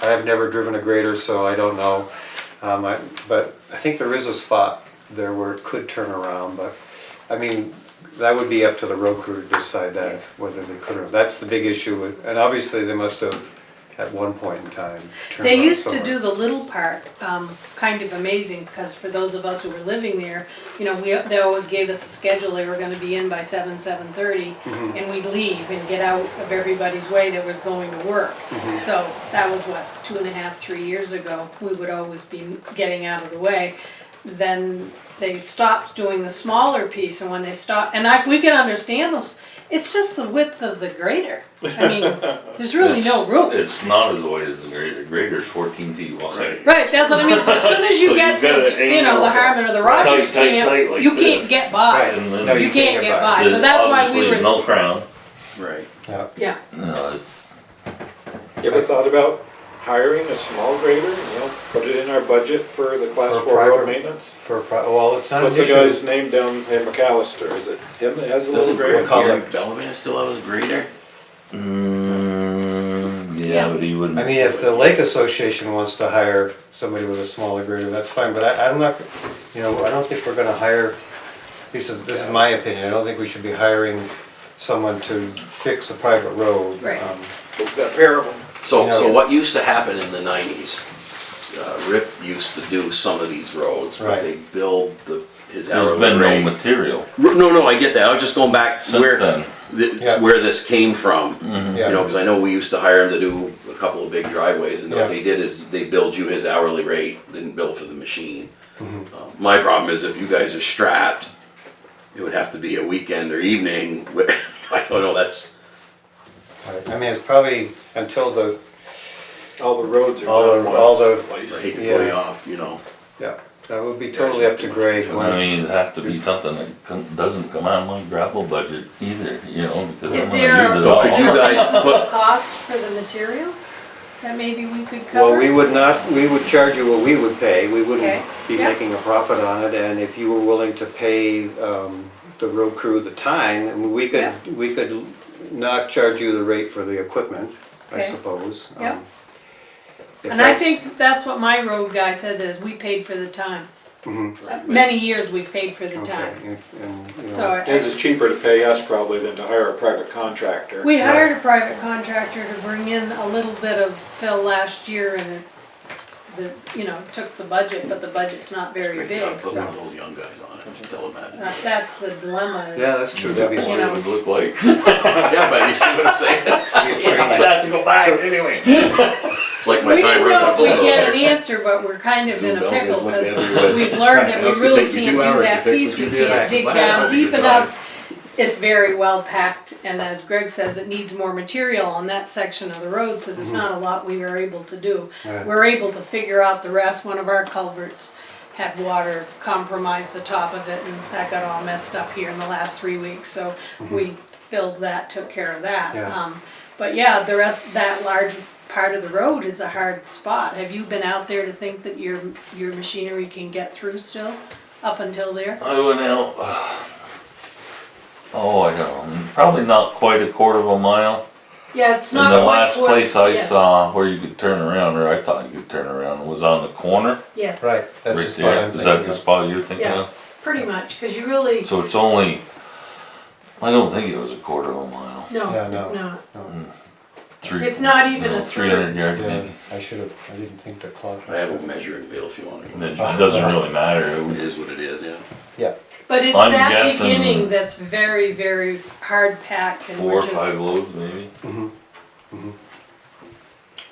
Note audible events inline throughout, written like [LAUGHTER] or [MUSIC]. I have never driven a grader, so I don't know. Um, I, but I think there is a spot there where it could turn around, but, I mean, that would be up to the road crew to decide that, if- whether they could or, that's the big issue, with- and obviously they must have, at one point in time, turned They around used to somewhere. do the little part, um, kind of amazing, because for those of us who were living there, you know, we, they always gave us a schedule, they were gonna be in by seven, seven thirty, Mm-hmm. and we'd leave and get out of everybody's way that was going to work. Mm-hmm. So that was what, two and a half, three years ago, we would always be getting out of the way. Then they stopped doing the smaller piece, and when they stopped, and I, we can understand this, it's just the width of the grader. I mean, [LAUGHS] there's really no room. It's not as wide as the grader, grader's fourteen feet wide. Right, that's what I mean, so as soon as [LAUGHS] So you you get gotta to, you know, the angle Harmon or the tight, Rogers tight, tight camps, like you can't this. get Right. by. And then No, You can't get by, so There's that's why we obviously were, no crown. Right. Yeah. yeah, No, it's, You ever thought about hiring a small grader, you know, put it in our budget for the class For four private- road maintenance? For, a pro- well, it's not an What's the issue. guy's name down in McAllister, is it him that has a little Doesn't Gary grader? call Gary it- Belvin still have his grader? mm, yeah, but he wouldn't. I mean, if the lake association wants to hire somebody with a smaller grader, that's fine, but I, I'm not, you know, I don't think we're gonna hire, this is, this is my opinion, I don't think we should be hiring someone to fix a private road. Right. um, We've got a pair of them. So, No. so what used to happen in the nineties, uh, Rip used to do some of these roads, but Right. they build the, his There's hourly been no rate. material R- No, no, I get that, I was just going back since where, then. Mm-hmm. Yeah. th- where this came from. You know, Yeah, cause I know we used to hire him to do a couple of big driveways and Yeah. what they did is they billed you his hourly rate, didn't bill for the machine. Mm-hmm. Uh, My problem is if you guys are strapped, it would have to be a weekend or evening, wh- [LAUGHS] I don't know, that's, I mean, it's probably until the, All the roads are All the- not all the- ones, at I least. hate to Yeah. play off, you know. yeah, that would be totally up to Greg. I when- mean, it'd have to be something that con- doesn't come out of my gravel budget either, you know, because Is I'm there- gonna use it So could you all. [LAUGHS] guys put, cost for the material that maybe we could cover. Well, we would not, we would charge you what we would pay, we wouldn't Okay, be yeah. making a profit on it, and if you were willing to pay, um, the road crew the time, and we could, Yeah. we could not charge you the rate for the equipment, I Okay. suppose. Yeah. um, if And I that's- think that's what my road guy said, is we paid for the time. Uh, Many years we paid for the Mm-hmm. okay, time, if- and, you know, so. I- His is cheaper to pay us probably than to hire a private contractor. We hired a private contractor to bring in a little bit of fill last year and it, the, you know, took the budget, but the budget's not very put big, one of so. those young guys on it, tell them [LAUGHS] that. Uh, That's the dilemma Yeah, is, that's true, Yeah. that'd be, What that'd it would [LAUGHS] look like. Yeah, but you see what [LAUGHS] I'm saying? be a training. have to go back anyway. [LAUGHS] It's like my we time don't running know my if we phone get over. an answer, but we're kind of in Zoom a out, it's pickle like the other because way. we've learned that [LAUGHS] Right, we it's gonna really take you can't two do hours to that fix piece, what you we did. can't dig Wow, down that's a deep good enough. time. It's very well packed and as Greg says, it needs more material on that section of the road, so there's not a lot we were able to do. Mm-hmm. Right. We're able to figure out the rest, one of our culverts had water compromise the top of it and that got all messed up here in the last three weeks, so we filled that, took care of that. Mm-hmm. Yeah. Um, But yeah, the rest, that large part of the road is a hard spot. Have you been out there to think that your, your machinery can get through still, up until there? [LAUGHS] I went out, [SIGHS] oh, I don't know, probably not quite a quarter of a mile. Yeah, it's And not. the quite last towards- place I yes, saw where you could turn around, or I thought you could turn around, was on the corner. Yes, Right, that's the Right spot there. I'm Is that thinking the of. spot you're thinking yeah, of? pretty much, cause you really, So it's only, I don't think it was a quarter of a mile. no, Yeah, no. it's not. Three- It's not even a Three third. hundred yard Yeah, maybe. I should have, I didn't think the clock. I have a measuring bill if you want And to. It doesn't really matter. It It was- is what it is, yeah. Yeah, But it's I'm that guessing- beginning that's very, very hard packed and Four we're or just. five loads maybe.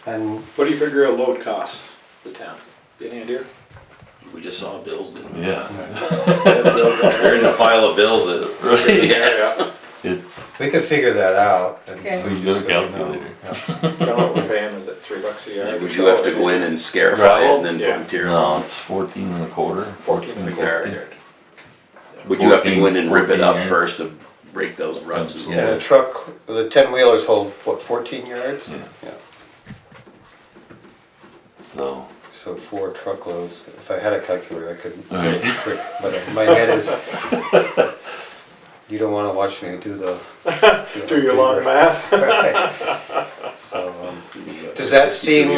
and, What do you figure a load costs the town? Any idea? We just saw bills, didn't we? Yeah. They're in the pile [LAUGHS] of [LAUGHS] bills that, [LAUGHS] yes. It's, we could figure that out. and Okay. so We just got so a we know. calculator. Yeah. Tell what we're paying, is it three bucks a yard? Would you have to go in and scarify it Gravel? and then Yeah. put material no, on? it's fourteen and a quarter. Fourteen and a quarter. Yard. Would you have to go in and rip it up 14, first to break those ruts and And the get truck, the ten wheelers hold, what, fourteen yards? Yeah. Yeah. So, So four truckloads, if I had a calculator, I could, all right. quick, but my head is, you don't wanna watch me do the. Do your long math? [LAUGHS] Right. so, um, But- does that seem